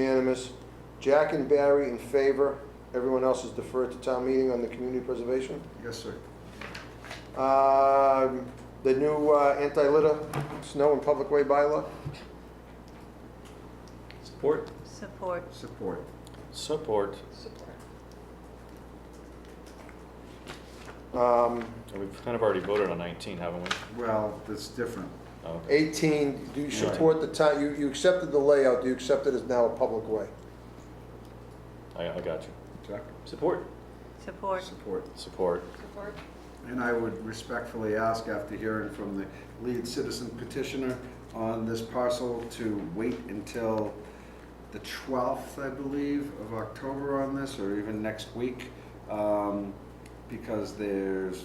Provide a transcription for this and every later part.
Unanimous. Jack and Barry in favor. Everyone else is deferred to town meeting on the community preservation. Yes, sir. Um, The new uh, anti-litter snow and public way bylaw. Support. Support. Support. Support. Um, We've kind of already voted on 19, haven't we? Well, that's different. Oh, okay. 18, do you Right. support the town, you you accepted the layout, do you accept it as now a public way? I, I got you. Chuck? Support. Support. Support. Support. And I would respectfully ask, after hearing from the lead citizen petitioner on this parcel, to wait until the 12th, I believe, of October on this, or even next week, um, because there's,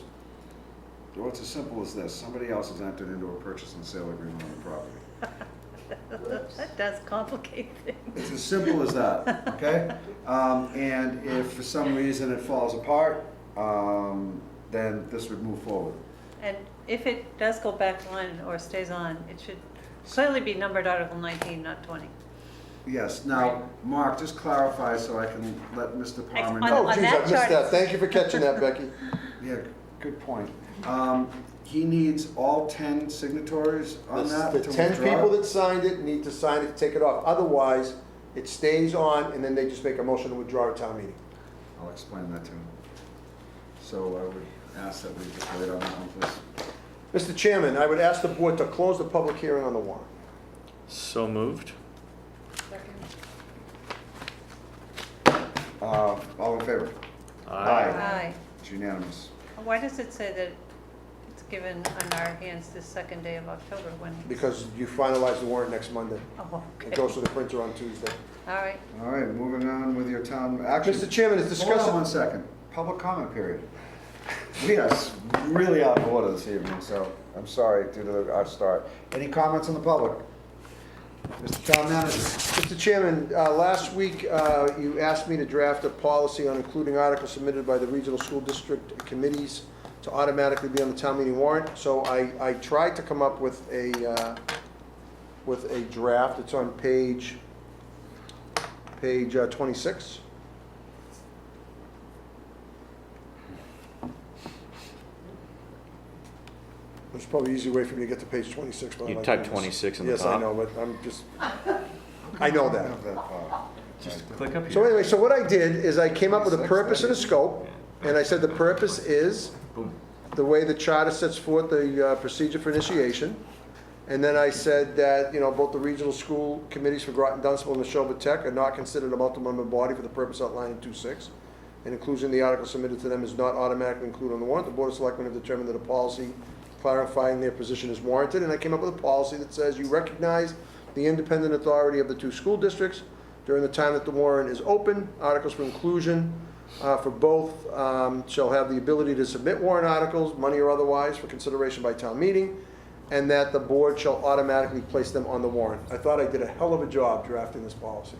well, it's as simple as this. Somebody else has entered into a purchase and sale agreement on the property. That does complicate things. It's as simple as that, okay? Um, and if for some reason it falls apart, um, then this would move forward. And if it does go back on or stays on, it should clearly be numbered Article 19, not 20. Yes, now, Mark, just clarify so I can let Mr. Ex- Palmer on- know. Oh, geez, I that missed chart- that. Thank you for catching that, Becky. Yeah, good point. Um, he needs all ten signatories on that to The withdraw. 10 people that signed it need to sign it, take it off. Otherwise, it stays on, and then they just make a motion to withdraw at town meeting. I'll explain that to him. So I would ask that we just wait on that one, please. Mr. Chairman, I would ask the board to close the public hearing on the warrant. So moved. Uh, all in favor? Aye. Aye. It's unanimous. Why does it say that it's given on our hands this second day of October when? Because you finalize the warrant next Monday. Oh, It okay. goes to the printer on Tuesday. All right. All right, moving on with your town action. Mr. Chairman, it's Hold on one discussed, second. Public comment period. We are s- really out of order this evening, so I'm sorry due to the- our start. Any comments on the public? Mr. Town Manager? Mr. Chairman, uh, last week, uh, you asked me to draft a policy on including articles submitted by the regional school district committees to automatically be on the town meeting warrant, so I, I tried to come up with a, uh, with a draft, it's on page, page uh, 26. There's probably an easy way for me to get to page 26, but I'm You not type doing this. 26 in the Yes, I top. know, but I'm just, I know that. Have that far. Just click up So here. anyway, so what I did is I came up with a purpose and a scope, and I said the purpose is Boom. the way the charter sets forth the uh, procedure for initiation. And then I said that, you know, both the regional school committees for Groton Dunstable and the Neshoba Tech are not considered a multi-member body for the purpose outlined in 2.6. And inclusion in the article submitted to them is not automatically included on the warrant. The Board of Selectmen have determined that a policy clarifying their position is warranted. And I came up with a policy that says you recognize the independent authority of the two school districts during the time that the warrant is open. Articles for inclusion uh, for both um, shall have the ability to submit warrant articles, money or otherwise, for consideration by town meeting, and that the board shall automatically place them on the warrant. I thought I did a hell of a job drafting this policy.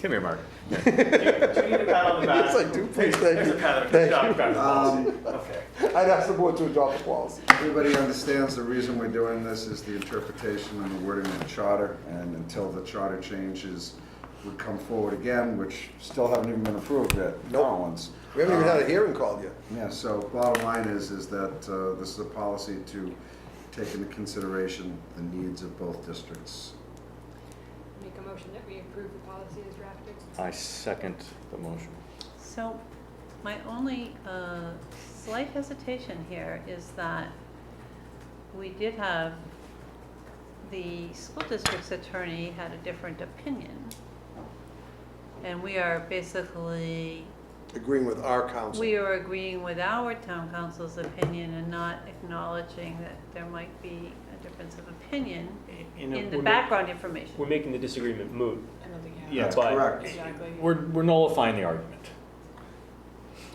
Come here, Mark. Do you need a pat on the back? Yes, I do, please, thank There's you. a pat on the Thank back. you. Um, Okay. I'd ask the board to adopt the policy. Everybody understands the reason we're doing this is the interpretation and the wording of the charter, and until the charter changes would come forward again, which still haven't even been approved yet, Nope. Collins. We haven't even had a hearing called yet. Yeah, so bottom line is, is that uh, this is a policy to take into consideration the needs of both districts. Make a motion that we approve the policy as drafted. I second the motion. So my only uh, slight hesitation here is that we did have, the school district's attorney had a different opinion. And we are basically, Agreeing with our counsel. we are agreeing with our town council's opinion and not acknowledging that there might be a difference of opinion You know, in the we're ma- background information. We're making the disagreement moot. I don't think Yeah, That's but- correct. Exactly. We're, we're nullifying the argument.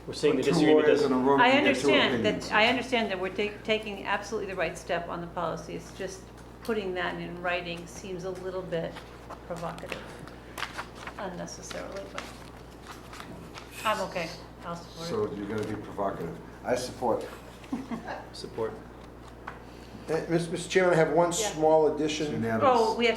We're saying the Two disagreement lawyers in a doesn't. room I can get two understand opinions. that, I understand that we're ta- taking absolutely the right step on the policy. It's just putting that in writing seems a little bit provocative unnecessarily, but I'm okay. I'll support So you're gonna be provocative. I support. Support. Uh, Mr. Chairman, I have one Yeah. small It's addition. unanimous. Oh, we have